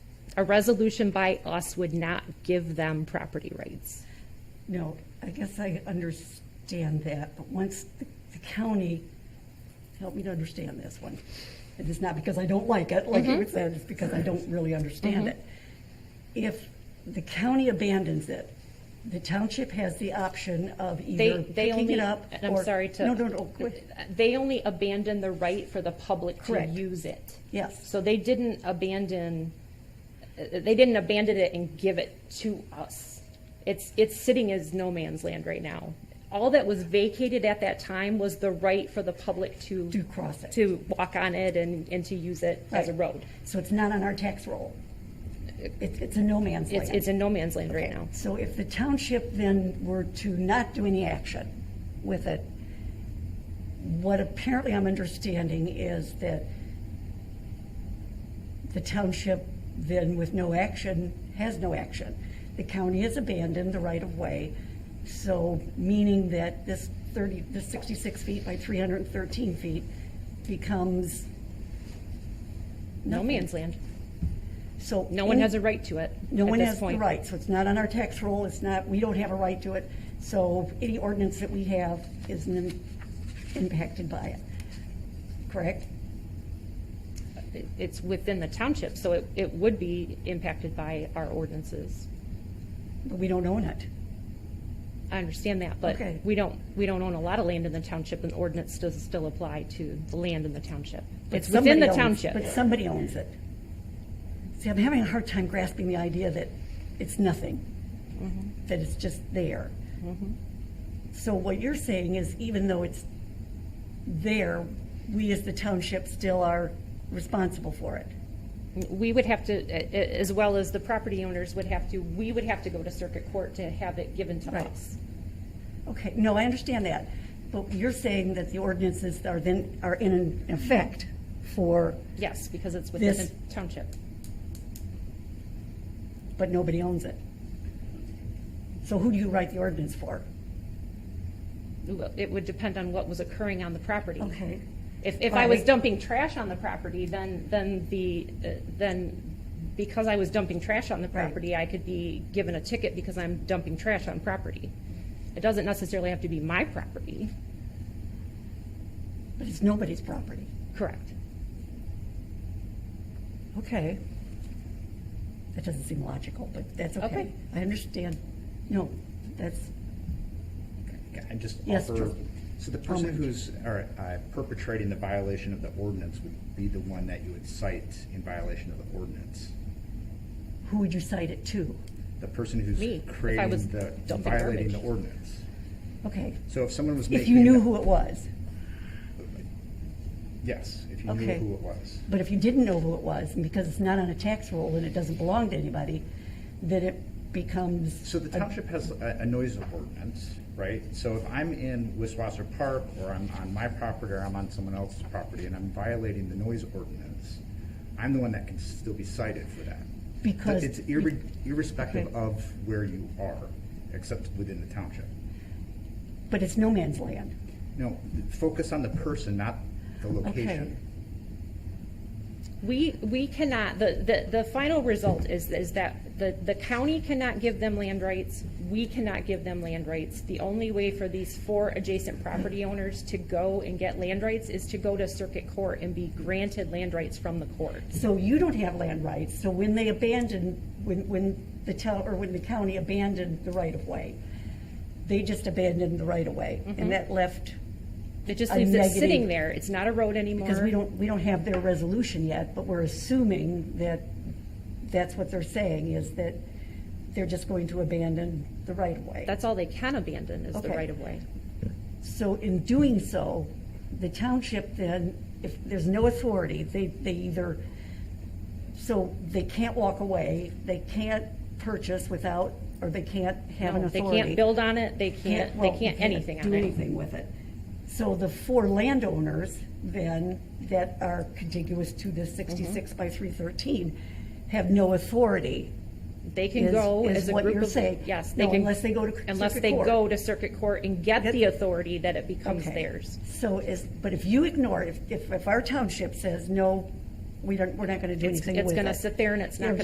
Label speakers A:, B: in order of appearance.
A: A resolution by us would not give them property rights.
B: No, I guess I understand that, but once the the county, help me to understand this one. It is not because I don't like it, like
A: Mm-hmm.
B: you said, it's because I don't really understand it. If the county abandons it, the township has the option of
A: They,
B: either
A: they
B: picking
A: only,
B: it up
A: and I'm
B: or-
A: sorry to.
B: No, no, no, quit.
A: They only abandon the right for the public to
B: Correct.
A: use it.
B: yes,
A: So they didn't abandon, uh, they didn't abandon it and give it to us. It's, it's sitting as no man's land right now. All that was vacated at that time was the right for the public to,
B: do cross it.
A: to walk on it and, and to use it as a
B: Right.
A: road.
B: So it's not on our tax roll. It's, it's a no man's land.
A: It's, it's in no man's land right now.
B: So if the township then were to not do any action with it, what apparently I'm understanding is that the township then with no action has no action. The county has abandoned the right of way, so meaning that this thirty, this sixty-six feet by three hundred and thirteen feet becomes
A: No
B: nothing.
A: man's land.
B: So.
A: No one
B: in-
A: has a right to it
B: Mm. no
A: at
B: one
A: this
B: has the
A: point.
B: right, so it's not on our tax roll, it's not, we don't have a right to it. So any ordinance that we have isn't im- impacted by it, correct?
A: It- It's within the township, so it, it would be impacted by our ordinances.
B: But we don't own it.
A: I understand that, but
B: Okay.
A: we don't, we don't own a lot of land in the township, and ordinance does still apply to the land in the township.
B: But
A: It's within the
B: somebody owns-
A: township.
B: But somebody owns it. See, I'm having a hard time grasping the idea that it's nothing,
A: Mm-hmm.
B: that it's just there. So what you're saying is even though it's there, we as the township still are responsible for it.
A: We would have to, a- a- as well as the property owners would have to, we would have to go to circuit court to have it given to
B: Right.
A: us.
B: Okay, no, I understand that, but you're saying that the ordinances are then, are in effect for,
A: Yes, because it's within
B: This-
A: the township.
B: but nobody owns it. So who do you write the ordinance for?
A: It would depend on what was occurring on the property.
B: Okay,
A: If, if I was
B: Right.
A: dumping trash on the property, then, then the, uh, then because I was dumping trash on the
B: Right.
A: property, I could be given a ticket because I'm dumping trash on property. It doesn't necessarily have to be my property,
B: but it's nobody's property.
A: correct?
B: Okay. That doesn't seem logical, but that's okay.
A: Okay.
B: I understand. No, that's,
C: And just
B: Yes,
C: offer,
B: Drew.
C: so the person
B: Comment.
C: who's or, uh, perpetrating the violation of the ordinance would be the one that you would cite in violation of the ordinance.
B: who would you cite it to?
C: The person who's
A: Me, if I was
C: creating the,
A: dumping
C: violating the
A: garbage.
C: ordinance.
B: Okay,
C: So if someone was making.
B: if you knew
C: the-
B: who it was,
C: Yes, if you knew
B: Okay.
C: who it was.
B: but if you didn't know who it was, and because it's not on a tax roll and it doesn't belong to anybody, then it becomes.
C: So the
B: a-
C: township has a, a noise ordinance, right? So if I'm in Wiswasser Park, or I'm on my property, or I'm on someone else's property, and I'm violating the noise ordinance, I'm the one that can still be cited for that.
B: Because-
C: It's irre- irrespective
B: Okay.
C: of where you are, except within the township.
B: But it's no man's land.
C: No, focus on the person, not the location.
A: We, we cannot, the, the, the final result is, is that the, the county cannot give them land rights, we cannot give them land rights. The only way for these four adjacent property owners to go and get land rights is to go to circuit court and be granted land rights from the court.
B: So you don't have land rights, so when they abandon, when, when the town, or when the county abandoned the right of way, they just abandoned the right of way, and that left,
A: It just
B: a
A: leaves it
B: negative-
A: sitting there. It's not a road anymore.
B: because we don't, we don't have their resolution yet, but we're assuming that that's what they're saying, is that they're just going to abandon the right of way.
A: That's all they can abandon is the
B: Okay.
A: right of way.
B: So in doing so, the township then, if there's no authority, they, they either, so they can't walk away, they can't purchase without, or they can't have an
A: No, they
B: authority.
A: can't build on it. They can't, they
B: well,
A: can't anything on
B: Do
A: it.
B: anything with it. So the four landowners then, that are contiguous to this
A: Mm-hmm.
B: sixty-six by three thirteen, have no authority.
A: They can
B: is-
A: go
B: is
A: as a
B: what
A: group
B: you're
A: of.
B: saying.
A: Yes,
B: No,
A: they can.
B: unless they go to c-
A: Unless
B: circuit
A: they
B: court.
A: go to circuit court and get the authority that it becomes
B: Okay.
A: theirs.
B: So is, but if you ignore, it, if, if, if our township says, no, we don't, we're not gonna do
A: It's,
B: anything
A: it's
B: with
A: gonna
B: it,"
A: sit there and it's not
B: You're
A: gonna